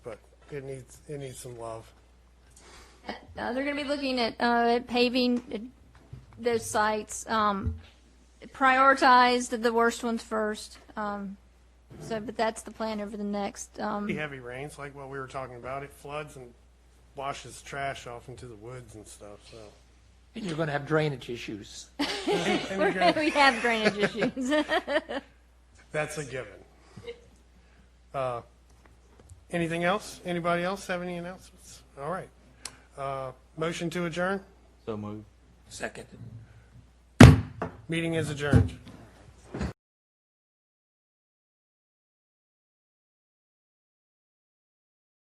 It needs, it needs some love. Uh, they're going to be looking at, uh, at paving uh, those sites. Um, prioritize the- the worst ones first. Um, so, but that's the plan over the next, Pretty um, heavy rains, like what we were talking about, it floods and washes trash off into the woods and stuff, so. And you're going to have drainage issues. And we you're gonna- have drainage issues. That's a given. Uh, Anything else? Anybody else have any announcements? All right. Uh, Motion to adjourn? So moved. Second. Meeting is adjourned.